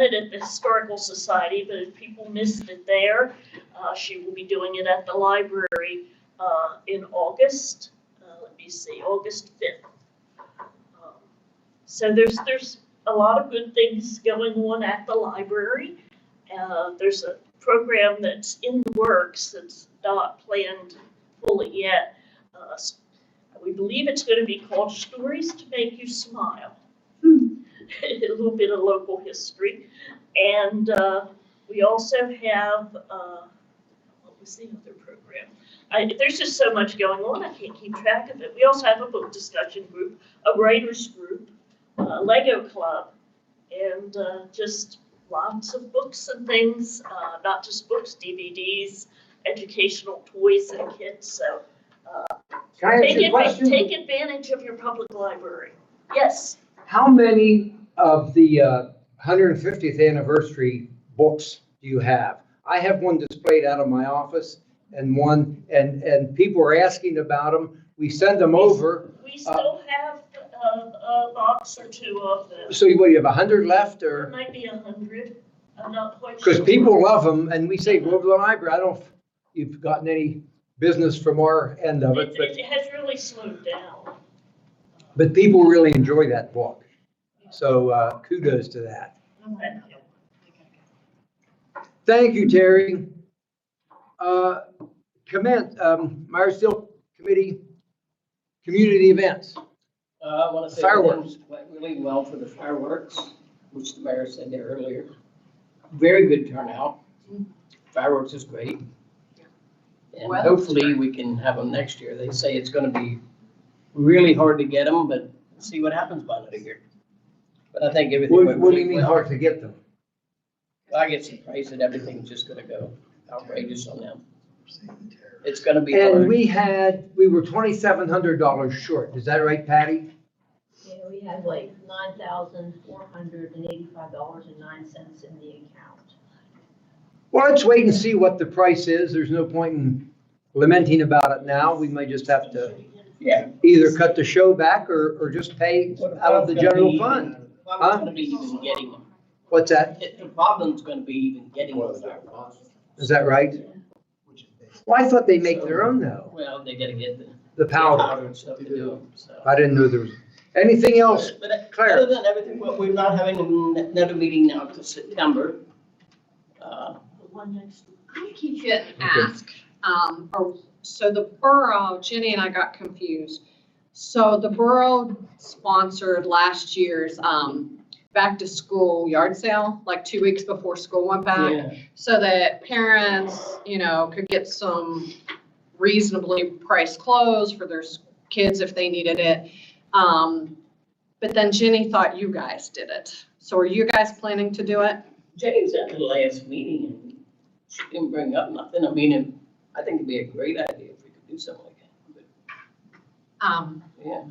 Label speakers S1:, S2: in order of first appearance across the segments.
S1: it at the Historical Society, but if people missed it there, uh, she will be doing it at the library, uh, in August, uh, let me see, August fifth. Um, So there's, there's a lot of good things going on at the library. Uh, there's a program that's in the works that's not planned fully yet. Uh, s- We believe it's gonna be called Stories to Make You Smile. A little bit of local history. And uh, we also have, uh, what was the other program? I, there's just so much going on, I can't keep track of it. We also have a book discussion group, a writers group, a Lego club, and uh, just lots of books and things, uh, not just books, DVDs, educational toys and kits. So
S2: Can I ask
S1: take,
S2: you a
S1: adva-
S2: question?
S1: take advantage of your public library. Yes.
S2: How many of the uh, 150th anniversary books do you have? I have one displayed out of my office and one, and, and people are asking about them. We send them over.
S1: We still have a, a box or two of them.
S2: So what, you have 100 left
S1: There
S2: or?
S1: might be a hundred, I'm not quite sure.
S2: Because people love them and we say, go over to the library. I don't, know if you've gotten any business from our end of it,
S1: It,
S2: but,
S1: it has really slowed down.
S2: but people really enjoy that book. So uh, kudos to that. Thank you, Terry. Uh, Comment, um, Myersville Committee, community events.
S3: Uh, I want to say
S2: Fireworks.
S3: things went really well for the fireworks, which the mayor said there earlier. Very good turnout. Fireworks is great. And
S4: Well,
S3: hopefully we can have them next year. They say it's going to be really hard to get them, but see what happens by next year. But I think everything.
S2: What
S3: went
S2: what do you
S3: really
S2: mean
S3: well.
S2: hard to get them?
S3: I get some praise that everything's just going to go outrageous on them. It's going to be
S2: And
S3: hard.
S2: we had, we were twenty-seven hundred dollars short. Is that right, Patty?
S4: Yeah, we had like nine thousand four hundred and eighty-five dollars and nine cents in the account.
S2: Well, let's wait and see what the price is. There's no point in lamenting about it now. We may just have to
S3: Yeah.
S2: either cut the show back or, or just pay out of the general fund.
S3: It's going to be even getting them.
S2: What's that?
S3: It- The problem's going to be even getting them fireworks.
S2: Is that right? Well, I thought they make their own though,
S3: Well, they gotta get the
S2: the powder.
S3: powder and stuff to do them, so.
S2: I didn't know there was, anything else?
S3: But uh,
S2: Claire?
S3: other than everything, well, we're not having another meeting now till September. Uh,
S1: One next
S5: I keep getting asked, um, or, so the borough, Jenny and I got confused. So the borough sponsored last year's, um, back to school yard sale, like two weeks before school went back.
S3: yeah,
S5: So that parents, you know, could get some reasonably priced clothes for their s- kids if they needed it. Um, but then Jenny thought you guys did it. So are you guys planning to do it?
S3: Jenny was at the last meeting and she didn't bring up nothing. I mean, and I think it'd be a great idea if we could do something like that. But
S5: Um.
S3: Yeah.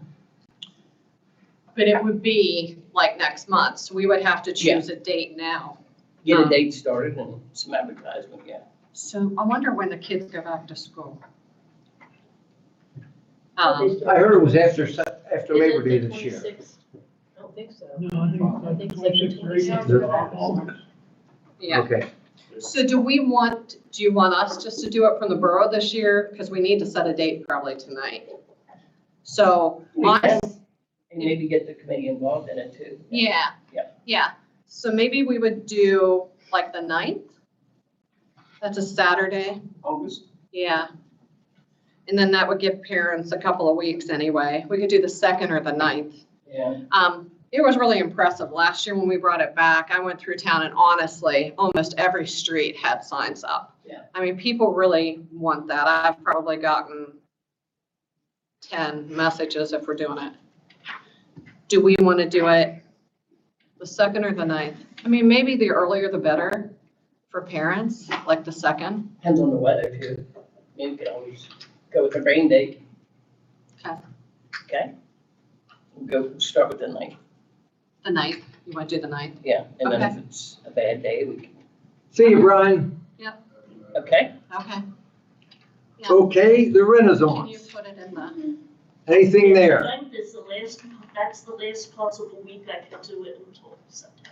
S5: But it would be like next month, so we would have to choose a date now.
S3: Get a
S5: Um,
S3: date started and some advertisement, yeah.
S5: So I wonder when the kids go back to school.
S4: They
S5: Um,
S4: started-
S2: I heard it was after, se- after
S4: Is it
S2: Labor Day
S4: the
S2: this year.
S4: 26th? I don't think so.
S6: No, I
S4: I
S6: think it's like
S4: think it's like the
S6: 26 grade.
S4: 26th.
S6: they're all-
S5: yeah,
S2: Okay.
S5: so do we want, do you want us just to do it from the borough this year? Because we need to set a date probably tonight. So,
S3: We
S5: my-
S3: can, And maybe get the committee involved in it too.
S5: yeah,
S3: Yeah.
S5: yeah, so maybe we would do like the ninth? That's a Saturday.
S3: August,
S5: Yeah. And then that would give parents a couple of weeks anyway. We could do the second or the ninth.
S3: yeah.
S5: Um, it was really impressive. Last year when we brought it back, I went through town and honestly, almost every street had signs up.
S3: Yeah.
S5: I mean, people really want that. I've probably gotten ten messages if we're doing it. Do we want to do it the second or the ninth? I mean, maybe the earlier the better for parents, like the second.
S3: Depends on the weather too. Maybe we could always go with the rain date.
S5: Okay.
S3: Okay? We'll Go, start with the ninth,
S5: The ninth, you want to do the ninth?
S3: yeah, and then if it's a bad day, we can,
S2: See you, Brian.
S3: okay?
S5: Okay. Yeah.
S2: Okay, the
S5: Can you
S2: Renaissance.
S5: put it in the,
S2: Anything there?
S1: Ninth is the last, that's the last possible week I can do it until September.